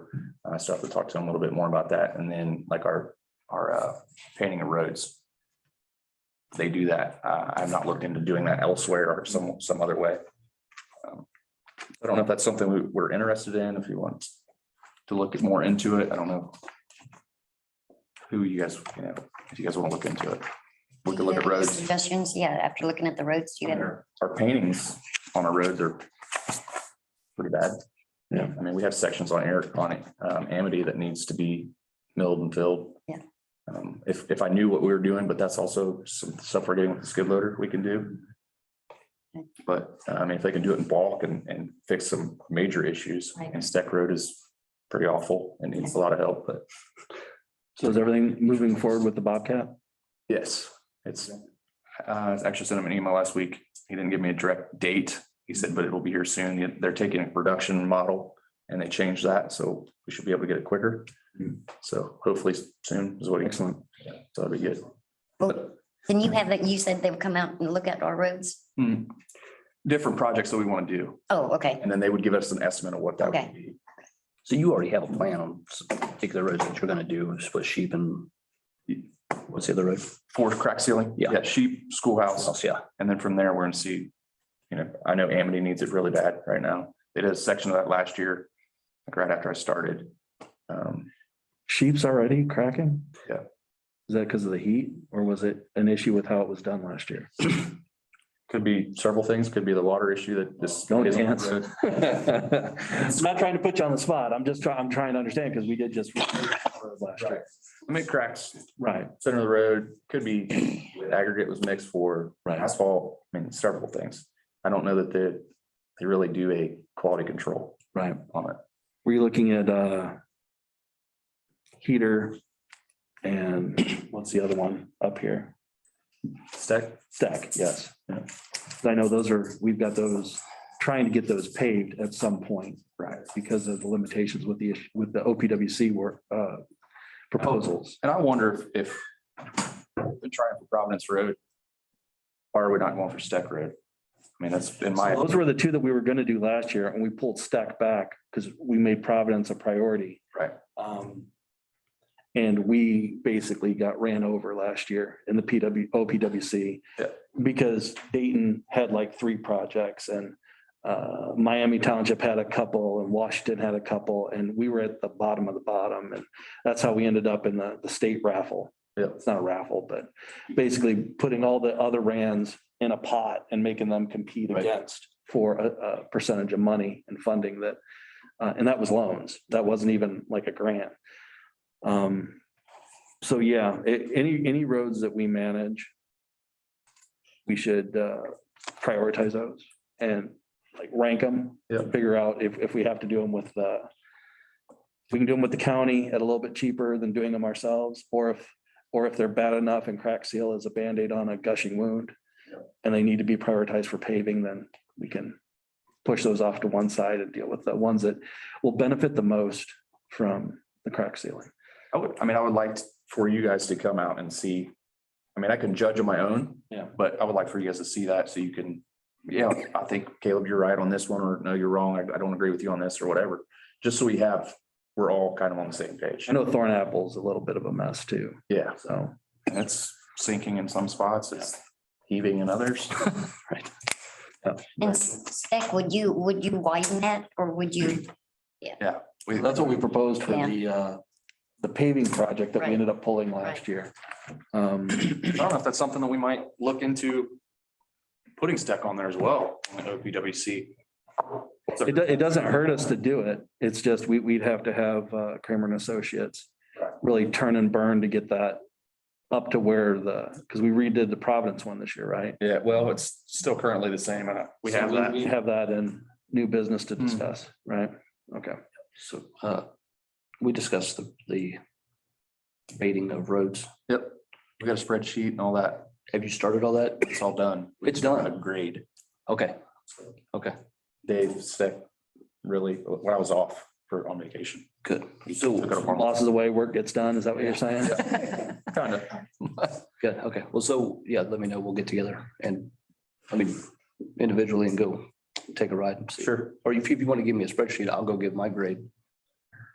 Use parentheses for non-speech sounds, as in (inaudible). Uh, so I have to talk to him a little bit more about that. And then like our, our, uh, painting of roads. They do that. Uh, I've not looked into doing that elsewhere or some, some other way. Um, I don't know if that's something we, we're interested in, if you want to look more into it. I don't know. Who you guys, you know, if you guys want to look into it. We could look at Do you have any roads. Suggestions, yeah, after looking at the roads, do you have, Our our paintings on our roads are pretty bad. Yeah. I mean, we have sections on Eric, on um, Amity that needs to be milled and filled. Yeah. Um, if, if I knew what we were doing, but that's also some stuff we're getting with the skid loader we can do. Okay. But uh, I mean, if they can do it in bulk and, and fix some major issues, Right. and Steck Road is pretty awful and needs a lot of help, but So is everything moving forward with the Bobcat? Yes, it's, uh, I actually sent him an email last week. He didn't give me a direct date. He said, but it will be here soon. They're taking a production model and they changed that, so we should be able to get it quicker. So hopefully soon is what he, so Excellent. that'd be good. But then you have, that you said they would come out and look at our roads? hmm, different projects that we want to do, Oh, okay, and then they would give us an estimate of what that Okay. would be. So you already have a plan on s- particular roads that you're gonna do, split sheep and what's the other road? For crack ceiling? Yeah. Sheep, schoolhouse. Else, yeah. And then from there, we're gonna see, you know, I know Amity needs it really bad right now. They did a section of that last year, like right after I started. Um, Sheep's already cracking? Yeah. Is that because of the heat or was it an issue with how it was done last year? could be several things, could be the water issue that this. No isn't- chance. (laughs) I'm Not trying to put you on the spot. I'm just trying, I'm trying to understand because we did just. last year. I mean, cracks, Right, center of the road, could be aggregate was mixed for right. asphalt, I mean, several things. I don't know that they, they really do a quality control Right. on it. Were you looking at uh heater and what's the other one up here? Stack, Stack, yes. Yeah. I know those are, we've got those, trying to get those paved at some point right. because of the limitations with the, issue- with the OPWC work uh proposals. And I wonder if, if they're trying for Providence Road, why are we not going for Steck Road? I mean, that's in my, So Those were the two that we were gonna do last year and we pulled stack back because we made Providence a priority. Right. Um, And we basically got ran over last year in the PW, OPWC. Yeah. Because Dayton had like three projects and uh, Miami Township had a couple and Washington had a couple and we were at the bottom of the bottom. And that's how we ended up in the, the state raffle. Yeah. It's not a raffle, but basically putting all the other Rands in a pot and making them compete Right. against for a, a percentage of money and funding that, uh, and that was loans. That wasn't even like a grant. Um, so yeah, a- any, any roads that we manage, we should, uh, prioritize those and like rank them. Yeah. Figure out if, if we have to do them with, uh, if we can do them with the county at a little bit cheaper than doing them ourselves, or if, or if they're bad enough and crack seal is a Band-Aid on a gushing wound and they need to be prioritized for paving, then we can push those off to one side and deal with the ones that will benefit the most from the crack sealing. I would, I mean, I would like for you guys to come out and see. I mean, I can judge on my own. Yeah. But I would like for you guys to see that so you can, yeah, (clears throat) I think Caleb, you're right on this one, or no, you're wrong. I, I don't agree with you on this or whatever. Just so we have, we're all kind of on the same page. I know Thorn Apple's a little bit of a mess too, Yeah, so. and it's sinking in some spots, it's heaving in others. (laughs) and spec, would you, would you widen that, or would you, We- That's what we proposed for Yeah. the, uh, the paving project that we Right. ended up pulling last year. Um, I don't know if that's something that we might look into putting stack on there as well, on the OPWC. It, do- it doesn't hurt us to do it. It's just we, we'd have to have uh, Kramer and Associates really turn and burn to get that up to where the, because we redid the Providence one this year, right? Yeah, well, it's still currently the same. uh, We have So that. We have that in new business to Hmm. discuss, right? Okay. So, uh, we discussed the, the baiting of roads. Yep, we got a spreadsheet and all that. Have you started all that? It's all done. It's done. Grade. Okay. Okay, Dave sick, really, when I was off for on vacation. good. Took it So, upon- Losses away, work gets done. Is that what you're saying? Kind of. good, okay. Well, so, yeah, let me know. We'll get together and, I mean, individually and go take a ride and see. Sure. Or if you want to give me a spreadsheet, I'll go give my grade